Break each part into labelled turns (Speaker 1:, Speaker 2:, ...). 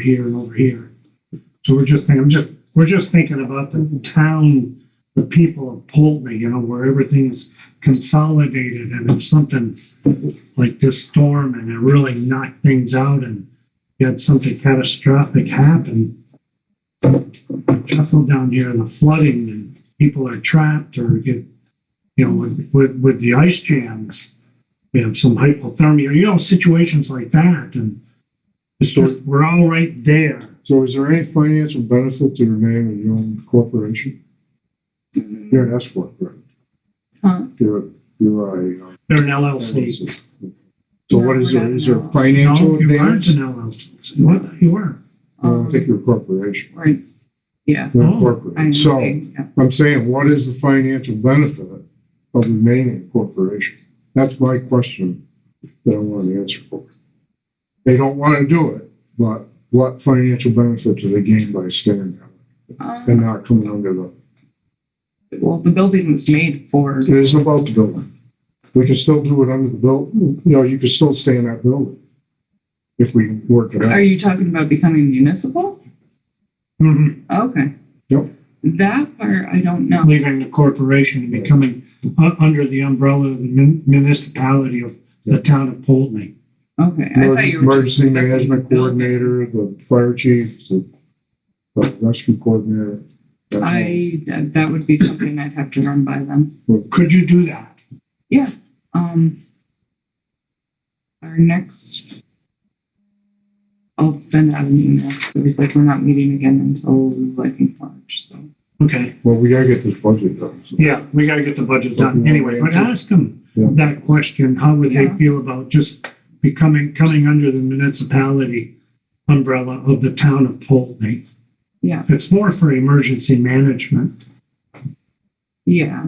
Speaker 1: here and over here. So we're just thinking, I'm just, we're just thinking about the town, the people of Poultney, you know, where everything is consolidated and if something like this storm and it really knocked things out and you had something catastrophic happen. Trestle down here and the flooding and people are trapped or get, you know, with, with, with the ice jams. We have some hypothermia, you know, situations like that and it's just, we're all right there.
Speaker 2: So is there any financial benefit to remaining a your own corporation? You're an S corp, right?
Speaker 3: Huh.
Speaker 2: You're, you're a. uh,
Speaker 1: They're an LLC.
Speaker 2: So what is there, is there a financial
Speaker 1: No, you aren't
Speaker 2: advantage?
Speaker 1: an LLC. What, you were?
Speaker 2: I don't think you're a corporation,
Speaker 3: Um, Right, yeah.
Speaker 2: you're a
Speaker 1: Oh,
Speaker 3: I
Speaker 2: corporate. So
Speaker 3: understand, yeah.
Speaker 2: I'm saying, what is the financial benefit of remaining a corporation? That's my question that I want an answer for. They don't want to do it, but what financial benefit do they gain by staying there and uh,
Speaker 3: Um,
Speaker 2: not coming under the
Speaker 3: Well, the building was made for,
Speaker 2: It isn't about the building. We can still do it under the buil, you know, you can still stay in that building if we work it
Speaker 3: are
Speaker 2: out.
Speaker 3: you talking about becoming municipal?
Speaker 1: Mhm.
Speaker 3: Okay.
Speaker 2: Yep.
Speaker 3: That part, I don't know.
Speaker 1: Leaving the corporation and becoming u- under the umbrella of the mun- municipality of the town of Poultney.
Speaker 3: Okay, I thought
Speaker 2: Emerg-
Speaker 3: you were just
Speaker 2: Emergency
Speaker 3: discussing
Speaker 2: management
Speaker 3: the building.
Speaker 2: coordinator, the fire chief, the the rescue coordinator. that whole-
Speaker 3: I, that that would be something I'd have to run by them.
Speaker 1: Could you do that?
Speaker 3: Um, our next, I'll send out an email. It was like, we're not meeting again until, I think, March, so.
Speaker 1: Okay,
Speaker 2: Well, we gotta get this budget done. so-
Speaker 1: yeah, we gotta get the budget done anyway, but ask them
Speaker 2: Yeah.
Speaker 1: that question. How would they
Speaker 3: Yeah.
Speaker 1: feel about just becoming, coming under the municipality umbrella of the town of Poultney?
Speaker 3: Yeah.
Speaker 1: It's more for emergency management.
Speaker 3: Yeah.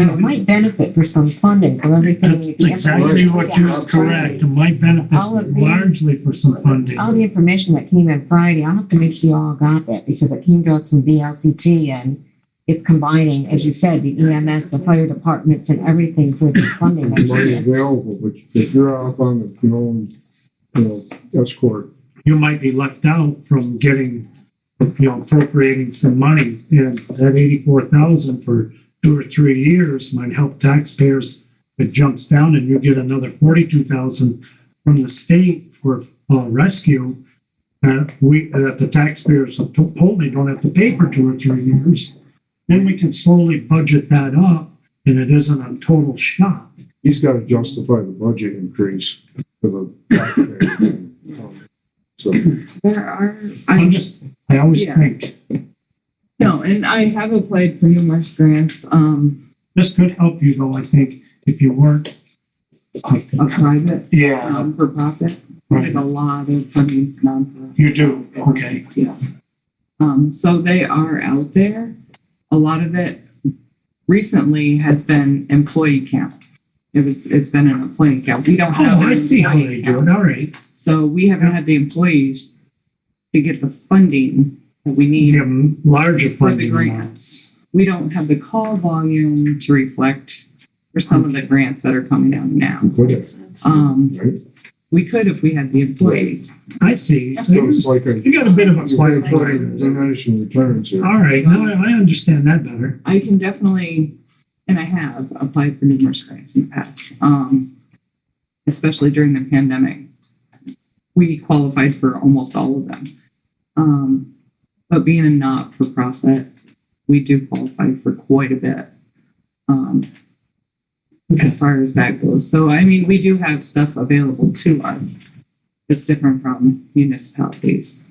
Speaker 4: And it might benefit for some funding from everything. you
Speaker 1: That's
Speaker 4: can-
Speaker 1: exactly what you're correct. It might benefit
Speaker 4: All of the-
Speaker 1: largely for some funding.
Speaker 4: All the information that came in Friday, I'll have to make sure you all got that because it came to us from VLCT and it's combining, as you said, the EMS, the fire departments and everything for the funding. that
Speaker 2: There's
Speaker 4: you
Speaker 2: Money
Speaker 4: get.
Speaker 2: available, but if you're off on your own, you know, escort,
Speaker 1: You might be left out from getting, you know, appropriating some money. And that eighty-four thousand for two or three years might help taxpayers. It jumps down and you get another forty-two thousand from the state for, uh, rescue. Uh, we, that the taxpayers of Polley don't have to pay for two or three years. Then we can slowly budget that up and it isn't a total shock.
Speaker 2: he's gotta justify the budget increase for the. taxpayer. So.
Speaker 3: There are,
Speaker 1: I'm
Speaker 3: I
Speaker 1: just, I always
Speaker 3: Yeah.
Speaker 1: think,
Speaker 3: no, and I have applied for numerous grants, um,
Speaker 1: this could help you though, I think, if you weren't.
Speaker 3: a private,
Speaker 1: Yeah,
Speaker 3: um, for profit. I
Speaker 1: right,
Speaker 3: have a lot of funding for nonprofit.
Speaker 1: you do, okay.
Speaker 3: Yeah. Um, so they are out there. A lot of it recently has been employee count. It was, it's been an employee count. We don't have.
Speaker 1: Oh,
Speaker 3: an
Speaker 1: I see how
Speaker 3: employee
Speaker 1: they do
Speaker 3: count.
Speaker 1: it, all right.
Speaker 3: So we haven't had the employees to get the funding that we need.
Speaker 1: You have larger
Speaker 3: for
Speaker 1: funding.
Speaker 3: the
Speaker 1: now.
Speaker 3: grants. We don't have the call volume to reflect for some of the grants that are coming out now.
Speaker 2: Okay.
Speaker 3: Um,
Speaker 2: Right?
Speaker 3: we could if we had the employees.
Speaker 1: I see.
Speaker 2: So it's like a.
Speaker 1: You got a bit of a
Speaker 2: You're gonna put
Speaker 1: plan.
Speaker 2: in diminishing returns here.
Speaker 1: All right, now I I understand that better.
Speaker 3: I can definitely, and I have applied for numerous grants in the past, um, especially during the pandemic. We qualified for almost all of them. Um, but being a not-for-profit, we do qualify for quite a bit. Um, as far as that goes. So, I mean, we do have stuff available to us that's different from municipalities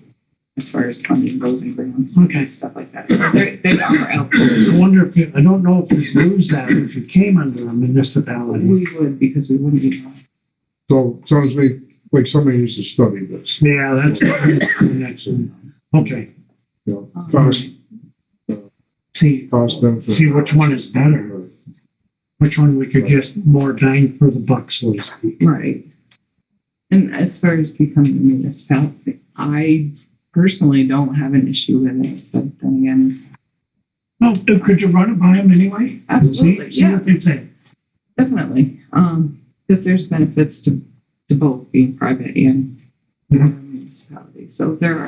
Speaker 3: as far as funding goes and grants
Speaker 1: Okay.
Speaker 3: and stuff like that. So they're- They are out there.
Speaker 1: I wonder if, you I don't know if you lose that if you came under a municipality.
Speaker 3: We would, because we wouldn't be.
Speaker 2: So sounds to me like somebody needs to study this,
Speaker 1: Yeah, that's the next one. Okay,
Speaker 2: you know,
Speaker 3: Um,
Speaker 2: cost,
Speaker 1: see,
Speaker 2: cost benefit.
Speaker 1: see which one is better, which one we could get more bang for the buck, so to speak.
Speaker 3: Right. And as far as becoming a municipality, I personally don't have an issue with it, but then again,
Speaker 1: Well, Oh, could you run it by them anyway?
Speaker 3: absolutely,
Speaker 1: See, see
Speaker 3: yeah,
Speaker 1: what they say.
Speaker 3: definitely. Um, because there's benefits to, to both being private and
Speaker 1: Mhm.
Speaker 3: um, municipality. So there are